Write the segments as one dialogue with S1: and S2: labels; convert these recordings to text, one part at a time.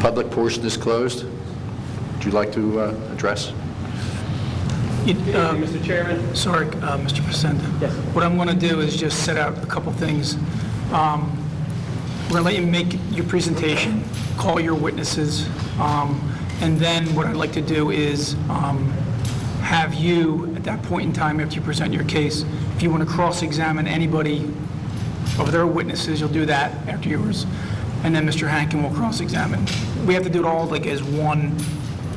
S1: Public portion is closed. Would you like to uh, address?
S2: You- um,
S3: Mr. Chairman?
S2: Sorry, uh, Mr. Pacenda.
S3: Yes.
S2: What I'm going to do is just set out a couple things. Um, We're going to let you make your presentation, call your witnesses, um, and then what I'd like to do is um, have you, at that point in time, after you present your case, if you want to cross-examine anybody of their witnesses, you'll do that after yours, and then Mr. Hankin will cross-examine. We have to do it all like as one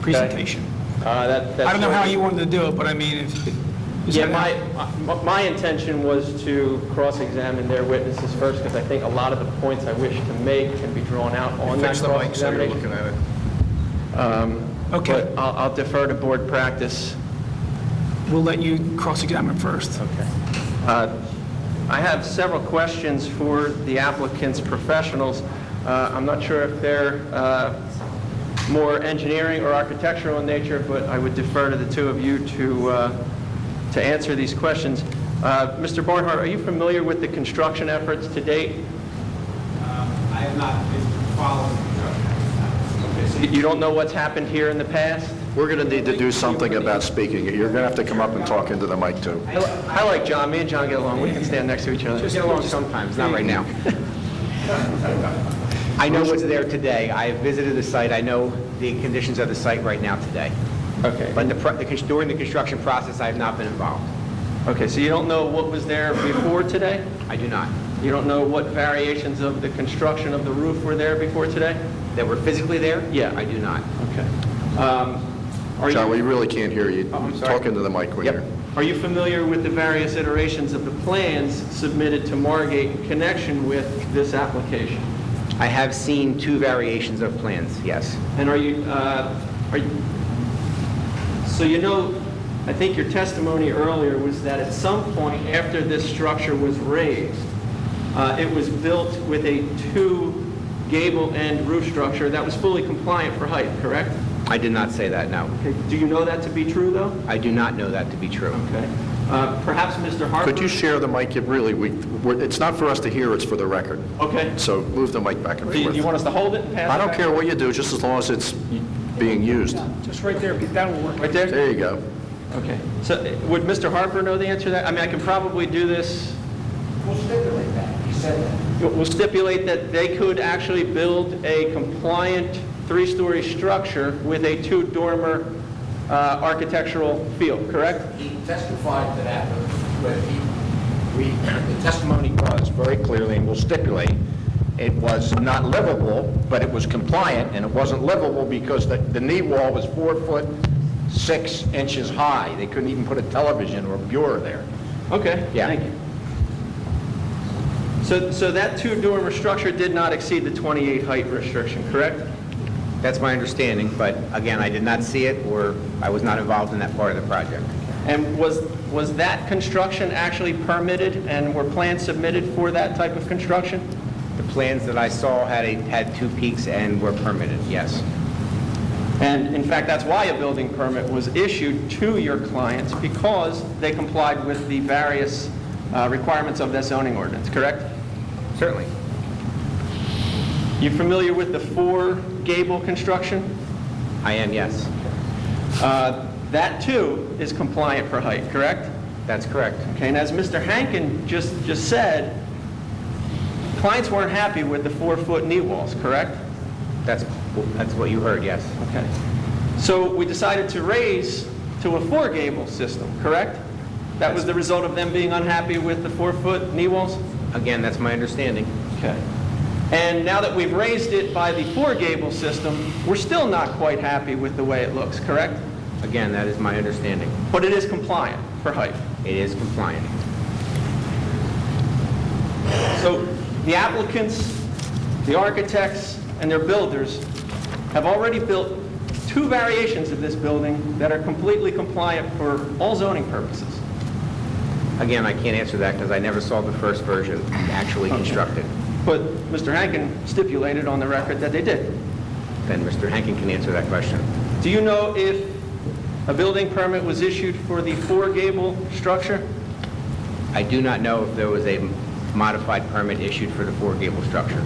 S2: presentation.
S3: Uh,
S2: I don't know how you wanted to do it, but I mean, if... is
S3: Yeah,
S2: that-
S3: my, my- my intention was to cross-examine their witnesses first, because I think a lot of the points I wish to make can be drawn out on that
S1: Fix the mic so you're
S3: cross-examination.
S1: looking at it.
S2: Okay,
S3: But I'll I'll defer to board practice.
S2: we'll let you cross-examine first.
S3: Uh, I have several questions for the applicant's professionals. Uh, I'm not sure if they're uh, more engineering or architectural in nature, but I would defer to the two of you to, uh, to answer these questions. Uh, Mr. Barnhart, are you familiar with the construction efforts to date?
S4: I have not been following the drug.
S3: You you don't know what's happened here in the past?
S1: We're going to need to do something about speaking. You're going to have to come up and talk into the mic, too.
S3: I li- I like John, me and John get along, we can stand next to each other.
S4: Just get along sometimes, not right now. I know what's there today. I have visited the site. I know the conditions of the site right now today.
S3: Okay.
S4: But the pro- the cons- during the construction process, I have not been involved.
S3: Okay, so you don't know what was there before today?
S4: I do not.
S3: You don't know what variations of the construction of the roof were there before today?
S4: That were physically there?
S3: Yeah.
S4: I do not.
S3: Okay. Um, Are
S1: John, we
S3: you,
S1: really can't hear you.
S3: Oh, I'm sorry.
S1: Talk into the mic when
S3: Yep.
S1: you're...
S3: are you familiar with the various iterations of the plans submitted to Margate in connection with this application?
S4: I have seen two variations of plans, yes.
S3: And are you, uh, are you, so you know, I think your testimony earlier was that at some point after this structure was raised, uh, it was built with a two gable end roof structure that was fully compliant for height, correct?
S4: I did not say that, no.
S3: Okay, do you know that to be true, though?
S4: I do not know that to be true.
S3: Okay. Uh, Perhaps Mr. Harper?
S1: Could you share the mic? It Really, we, we're- it's not for us to hear, it's for the record.
S3: Okay.
S1: So move the mic back and
S3: Do you do you
S1: forth.
S3: want us to hold it and pass it
S1: I don't
S3: back?
S1: care what you do, just as long as it's being used.
S2: Just right there, that'll work.
S3: Right there?
S1: There you go.
S3: Okay. So uh, would Mr. Harper know the answer to that? I mean, I can probably do this. We'll stipulate that. He said that. We'll stipulate that they could actually build a compliant three-story structure with a two-dormer uh, architectural feel, correct?
S5: He testified to that, but he, we, the testimony was very clearly, and we'll stipulate, it was not livable, but it was compliant, and it wasn't livable because the, the knee wall was four foot, six inches high. They couldn't even put a television or a bureau there.
S3: Okay.
S5: Yeah.
S3: Thank you. So, so that two-dormer structure did not exceed the 28 height restriction, correct?
S4: That's my understanding, but again, I did not see it, or I was not involved in that part of the project.
S3: And was, was that construction actually permitted, and were plans submitted for that type of construction?
S4: The plans that I saw had, a- had two peaks and were permitted, yes.
S3: And in fact, that's why a building permit was issued to your clients, because they complied with the various uh, requirements of this zoning ordinance, correct?
S4: Certainly.
S3: You familiar with the four gable construction?
S4: I am, yes.
S3: Uh, That, too, is compliant for height, correct?
S4: That's correct.
S3: Okay, and as Mr. Hankin just, just said, clients weren't happy with the four-foot knee walls, correct?
S4: That's, that's what you heard, yes.
S3: Okay. So we decided to raise to a four-gable system, correct? That was the result of them being unhappy with the four-foot knee walls?
S4: Again, that's my understanding.
S3: Okay. And now that we've raised it by the four-gable system, we're still not quite happy with the way it looks, correct?
S4: Again, that is my understanding.
S3: But it is compliant for height.
S4: It is compliant.
S3: So the applicants, the architects, and their builders have already built two variations of this building that are completely compliant for all zoning purposes.
S4: Again, I can't answer that because I never saw the first version actually constructed.
S3: But Mr. Hankin stipulated on the record that they did.
S4: Then Mr. Hankin can answer that question.
S3: Do you know if a building permit was issued for the four-gable structure?
S4: I do not know if there was a modified permit issued for the four-gable structure.